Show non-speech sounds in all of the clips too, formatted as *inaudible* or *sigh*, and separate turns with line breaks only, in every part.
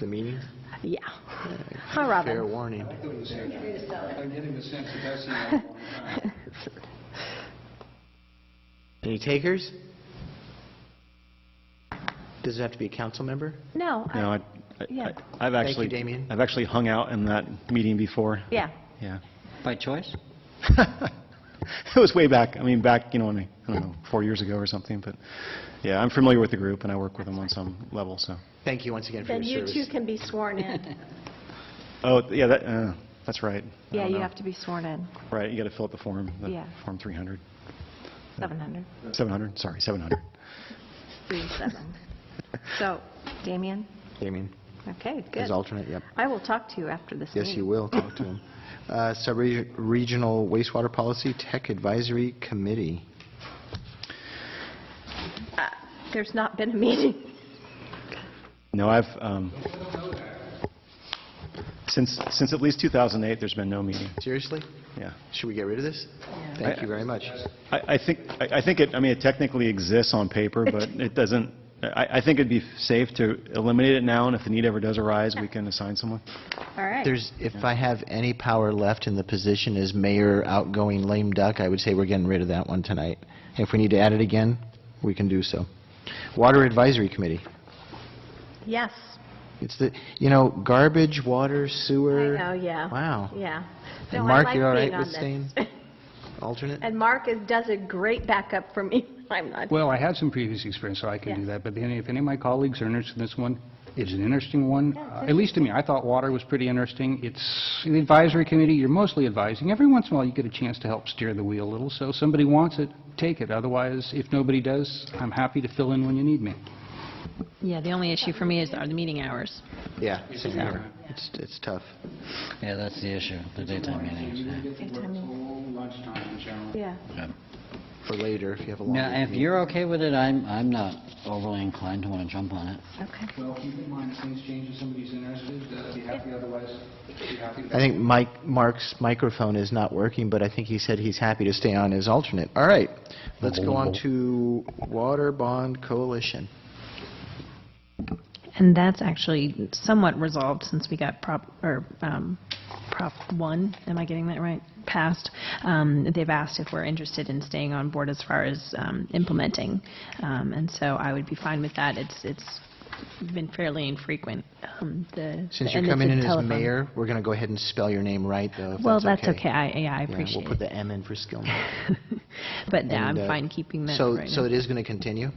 the meeting?
Yeah. Hi,
Fair
Robin.
warning.
I'm getting the sense that that's the only one.
Any takers? Does it have to be a council member?
No. I-
No, I-
Yeah.
I- I've
Thank you,
actually...
Damien.
I've actually hung out in that meeting before.
Yeah.
Yeah.
By choice?
*laughs* It was way back, I mean, back, you know, when I I don't know, four years ago or something, but, yeah, I'm familiar with the group, and I work with them on some level, so.
Thank you once again for
Then you
your
two
service.
can be sworn
*laughs*
in.
Oh, th- yeah, that, uh, that's right. I
Yeah,
don't
you
know.
have to be sworn in.
Right, you got to fill out the form, the
Yeah.
Form 300,
700,
700, sorry, 700.
37. *laughs* So, Damien?
Damien,
Okay,
as
good.
alternate, yep.
I will talk to you after this meeting.
Yes, you will, talk to him. Uh, Sub-regional wastewater policy tech advisory committee.
Uh, There's not been a meeting.
No, I've, um, since, since at least 2008, there's been no meeting,
Seriously?
yeah.
Should we get rid of this? Thank you very much.
I I think, I I think it, I mean, it technically exists on paper, but it doesn't, I I think it'd be safe to eliminate it now, and if the need ever does arise, we can assign someone.
*laughs* All right.
There's, if I have any power left in the position as mayor outgoing lame duck, I would say we're getting rid of that one tonight. If we need to add it again, we can do so. Water Advisory Committee.
Yes.
It's the, you know, garbage, water,
I
sewer.
know, yeah.
Wow.
Yeah.
And
No, I
Mark,
like
you all right
being on
with
this.
staying? Alternate?
*laughs* And Mark is, does a great backup for me *laughs* when I'm not.
Well, I have some previous experience, so I can do
Yeah.
that, but then if any of my colleagues are interested in this one, it's an interesting one, Uh, at least to me. I thought water was pretty interesting. It's the advisory committee, you're mostly advising. Every once in a while, you get a chance to help steer the wheel a little, so if somebody wants it, take it. Otherwise, if nobody does, I'm happy to fill in when you need me.
Yeah, the only issue for me is are the meeting hours.
Yeah. same here. It's, it's tough.
Yeah, that's the issue, the daytime meetings.
Yeah.
yeah.
For later, if you have a long
Now,
meeting.
if you're okay with it, I'm, I'm not overly inclined to want to jump on it.
Okay.
Well, keep in mind, things change if somebody's interested, uh, be happy, otherwise, be happy
I think Mike, Mark's microphone is not working, but I think he said he's happy to stay on as alternate. All right, let's go on to Water Bond Coalition.
And that's actually somewhat resolved since we got Prop, or um, Prop 1, am I getting that right? Passed. Um, They've asked if we're interested in staying on board as far as um, implementing. Um, And so I would be fine with that. It's, it's been fairly infrequent. um, the-
Since
and
you're
it's
coming
a
in as
telephone.
mayor, we're going to go ahead and spell your name right, though, if
Well, that's okay. I, yeah, I
Yeah,
appreciate it.
We'll put the M in for
*laughs*
Skillman.
But yeah, I'm
And, uh,
fine keeping that
So,
right
so
now.
it is going to continue?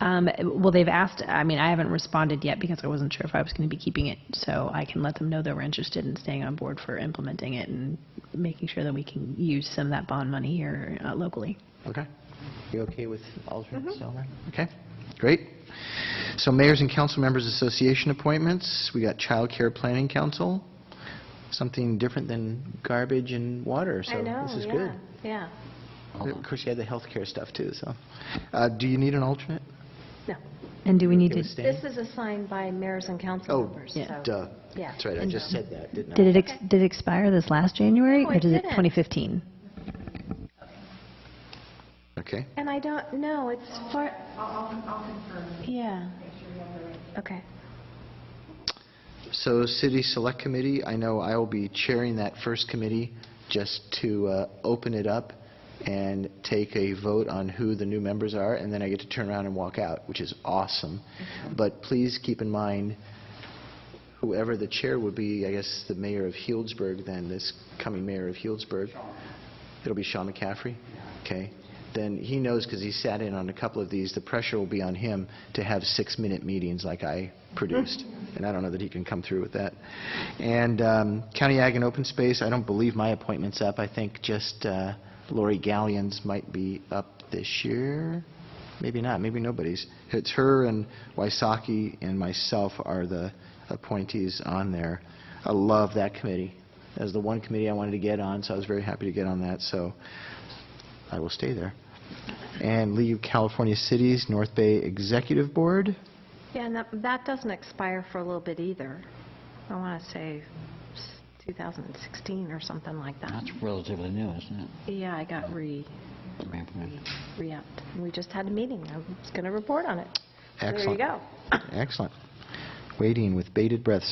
Um, Well, they've asked, I mean, I haven't responded yet because I wasn't sure if I was going to be keeping it, so I can let them know that we're interested in staying on board for implementing it and making sure that we can use some of that bond money here uh, locally.
Okay. You okay with
Mm-hmm.
alternates, all right? Okay, great. So Mayors and Council Members Association appointments, we got Child Care Planning Council, something different than garbage and water, so
I know,
this is
yeah,
good.
Yeah.
Of course, you had the healthcare stuff too, so. Uh, Do you need an alternate?
No.
And do we need
Okay with
to,
staying?
This is assigned by mayors and council
Oh,
members,
Yeah.
so.
duh.
Yeah.
That's right, I just said that, didn't I?
Did it, ex- did it expire this last January?
No, it
Or did it
didn't.
2015?
Okay.
And I don't know, it's far. I'll confirm. Yeah. Okay.
So City Select Committee, I know I will be chairing that first committee just to uh, open it up and take a vote on who the new members are, and then I get to turn around and walk out, which is awesome. But please keep in mind, whoever the chair would be, I guess the mayor of Healdsburg then, this coming mayor of Healdsburg, it'll be Sean McCaffrey? Okay. Then he knows, because he sat in on a couple of these, the pressure will be on him to have six-minute meetings like I produced. And I don't know that he can come through with that. And um, County Ag and Open Space, I don't believe my appointment's up. I think just uh, Lori Gallions might be up this year. Maybe not, maybe nobody's. It's her and Wysocki and myself are the appointees on there. I love that committee. That was the one committee I wanted to get on, so I was very happy to get on that, so I will stay there. And League of California Cities, North Bay Executive Board,
Yeah, and that, that doesn't expire for a little bit either. I want to say s- 2016 or something like that.
That's relatively new, isn't
Yeah, I got re,
it? I mean,
re-upped. We just had a meeting. I was going to report on it. There
*laughs*
you
Excellent.
go.
Excellent. waiting with bated breath